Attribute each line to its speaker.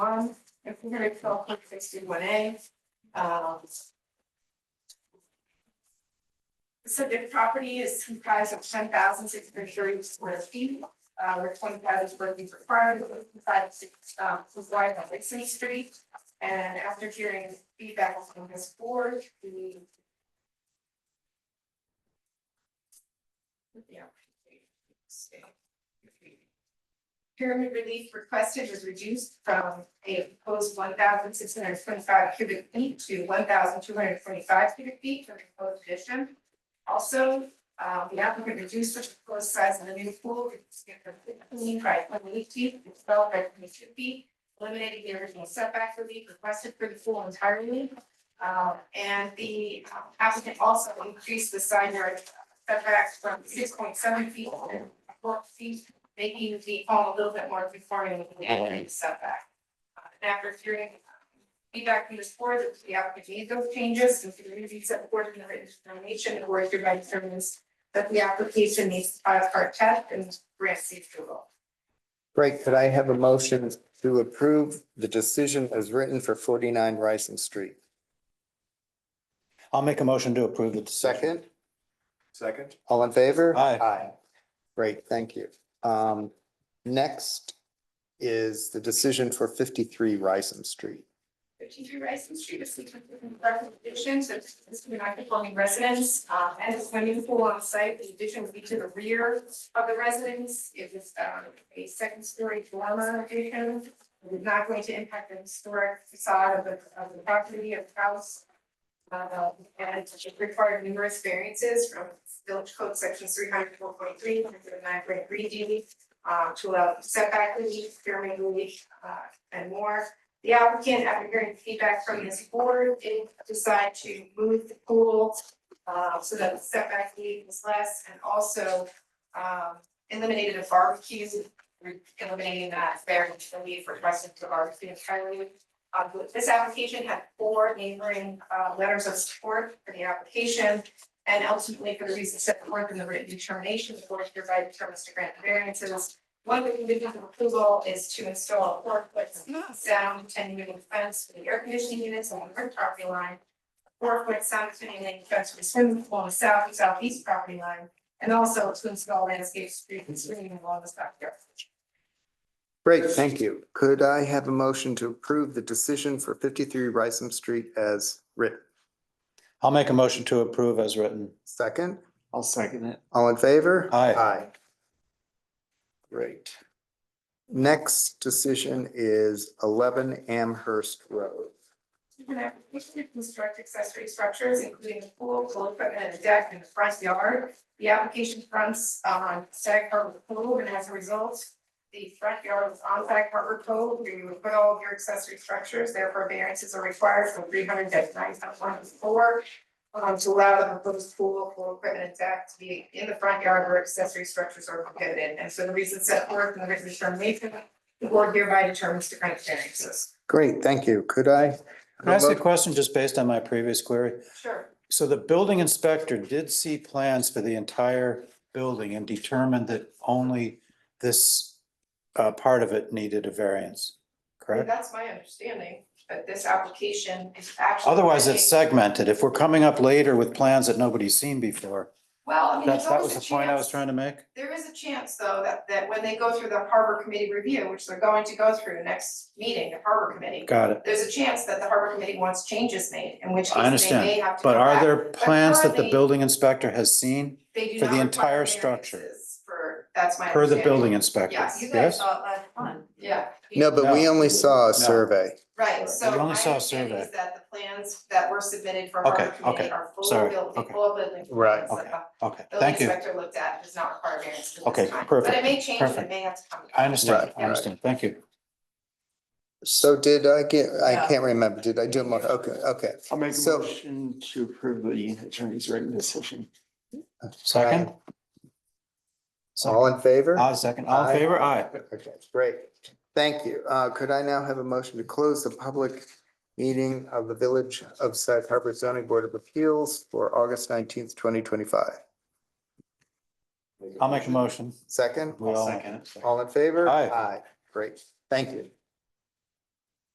Speaker 1: Under twelve point sixty-one A, um. Subject property is comprised of ten thousand six hundred thirty square feet, uh, where twenty thousand square feet required, five, six, um, wide on Lexington Street. And after hearing feedback from this board, we. Yeah. Pyramid relief requested was reduced from a proposed one thousand six hundred twenty-five cubic feet to one thousand two hundred twenty-five cubic feet for the proposed addition. Also, uh, the applicant reduced the proposed size of the new pool, reducing it from fifteen by twenty-eight feet, to twelve by twenty-two feet, eliminating the original setback relief requested for the pool entirely. Uh, and the um, applicant also increased the side yard setback from six point seven feet to four feet making the home a little bit more conforming with the area setback. Uh, And after hearing um, feedback from this board, that the applicant made those changes and for the reasons set forth in the written determination, the board hereby determines that the application needs to file a part test and grant safe approval.
Speaker 2: Great. Could I have a motion to approve the decision as written for forty-nine Rising Street?
Speaker 3: I'll make a motion to approve the decision.
Speaker 2: Second,
Speaker 4: Second?
Speaker 2: all in favor?
Speaker 3: Aye.
Speaker 2: Great, thank you. Um, next is the decision for fifty-three Rising Street.
Speaker 1: Fifty-three Rice Street is seeking recommendations of this non-conforming residence, um, and this swimming pool on site, the addition would be to the rear of the residence. It was, um, a second-story dormer addition, It was not going to impact the historic facade of the, of the property of the house. Uh, and it required numerous variances from village code sections three hundred four point three, one hundred nine point three D, uh, to allow setback relief, pyramid relief, uh, and more. The applicant, after hearing feedback from this board, did decide to move the pool uh, so that the setback need was less and also um, eliminated a barbecue, eliminating that variance relief requested for barbecue entirely. Uh, This application had four neighboring uh, letters of support for the application. And ultimately, for the reasons set forth in the written determination, the board hereby determines to grant the variances. One of the conditions of approval is to install a four-foot sound attenuating fence for the air conditioning units on the rear property line. Four foot sound attenuating fence for the swimming pool on the south and southeast property line, and also to install landscape street and screening along the backyard.
Speaker 2: Great, thank you. Could I have a motion to approve the decision for fifty-three Rising Street as written?
Speaker 3: I'll make a motion to approve as written.
Speaker 2: Second,
Speaker 4: I'll second it.
Speaker 2: all in favor?
Speaker 3: Aye.
Speaker 2: Aye. Great. Next decision is eleven Amherst Road.
Speaker 1: An application to construct accessory structures, including a pool, pool equipment, and a deck in the front yard. The application fronts on Sag Harbor Cove, and as a result, the front yard is on Sag Harbor Cove, where you would put all of your accessory structures, therefore variances are required from three hundred dash nine dot one to four. um, to allow the proposed pool, pool equipment, and deck to be in the front yard where accessory structures are prohibited, and so the reasons set forth in the written determination, the board hereby determines to grant variances.
Speaker 2: Great, thank you. Could I?
Speaker 3: Can I ask a question just based on my previous query?
Speaker 1: Sure.
Speaker 3: So the building inspector did see plans for the entire building and determined that only this uh, part of it needed a
Speaker 1: I
Speaker 3: variance,
Speaker 1: mean,
Speaker 3: correct?
Speaker 1: That's my understanding, but this application is actually.
Speaker 3: Otherwise, it's uh,
Speaker 1: saying-
Speaker 3: segmented. If we're coming up later with plans that nobody's seen before,
Speaker 1: Well, I mean,
Speaker 3: that's,
Speaker 1: there's
Speaker 3: that was
Speaker 1: always
Speaker 3: the
Speaker 1: a
Speaker 3: point I was
Speaker 1: chance,
Speaker 3: trying to make.
Speaker 1: there is a chance, though, that, that when they go through the harbor committee review, which they're going to go through next meeting, the harbor committee.
Speaker 3: Got it.
Speaker 1: There's a chance that the harbor committee wants changes made, in which
Speaker 3: I
Speaker 1: case they may have to
Speaker 3: But
Speaker 1: go
Speaker 3: are
Speaker 1: back.
Speaker 3: there plans that the
Speaker 1: currently-
Speaker 3: building inspector has seen
Speaker 1: They do
Speaker 3: for the
Speaker 1: not require
Speaker 3: entire structure?
Speaker 1: variances For, that's my
Speaker 3: per the
Speaker 1: understanding.
Speaker 3: building inspector?
Speaker 1: Yeah, you guys
Speaker 3: Yes?
Speaker 1: saw it last month, yeah.
Speaker 2: No, but we
Speaker 3: No.
Speaker 2: only saw
Speaker 3: No.
Speaker 2: a survey.
Speaker 1: Right, so
Speaker 3: We
Speaker 1: my
Speaker 3: only saw a
Speaker 1: understanding is
Speaker 3: survey.
Speaker 1: that the plans that were submitted for
Speaker 3: Okay,
Speaker 1: harbor committee
Speaker 3: okay,
Speaker 1: are full
Speaker 3: sorry,
Speaker 1: building,
Speaker 3: okay.
Speaker 1: full building.
Speaker 2: Right,
Speaker 1: plans that
Speaker 3: okay.
Speaker 1: the
Speaker 3: Okay,
Speaker 1: building
Speaker 3: thank you.
Speaker 1: inspector looked at does not require variance at this
Speaker 3: Okay,
Speaker 1: time. But it
Speaker 3: perfect.
Speaker 1: may change, and it
Speaker 3: perfect.
Speaker 1: may have to come.
Speaker 3: I understand,
Speaker 2: Right,
Speaker 3: I understand. Thank you.
Speaker 2: So did I get, I
Speaker 1: No.
Speaker 2: can't remember. Did I do a mo- Okay, okay.
Speaker 4: I'll make a
Speaker 2: So-
Speaker 4: motion to approve the attorney's written decision.
Speaker 3: Second?
Speaker 2: All in favor?
Speaker 3: Aye, second. All
Speaker 2: Aye.
Speaker 3: in favor? Aye.
Speaker 2: Okay, great. Thank you. Uh, could I now have a motion to close the public meeting of the Village of Sag Harbor Zoning Board of Appeals for August nineteenth, twenty twenty-five?
Speaker 3: I'll make a motion.
Speaker 2: Second,
Speaker 3: We all-
Speaker 2: all in favor?
Speaker 3: Aye.
Speaker 2: Aye, great. Thank you.